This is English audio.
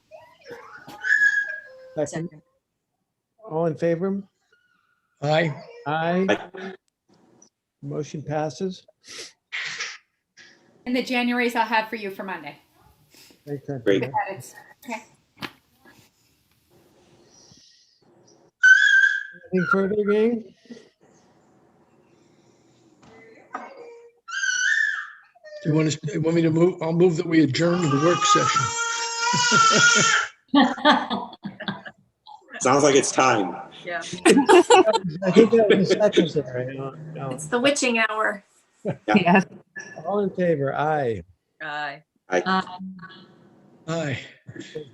Second. Second. All in favor? Aye. Aye. Motion passes. And the Januaries I'll have for you for Monday. Thanks, Anthony. Great. With edits. Anything further, gang? Do you want to, want me to move? I'll move that we adjourn the work session. Sounds like it's time. I think that was seconds there. I don't know. It's the witching hour. Yes. All in favor? Aye. Aye. Aye.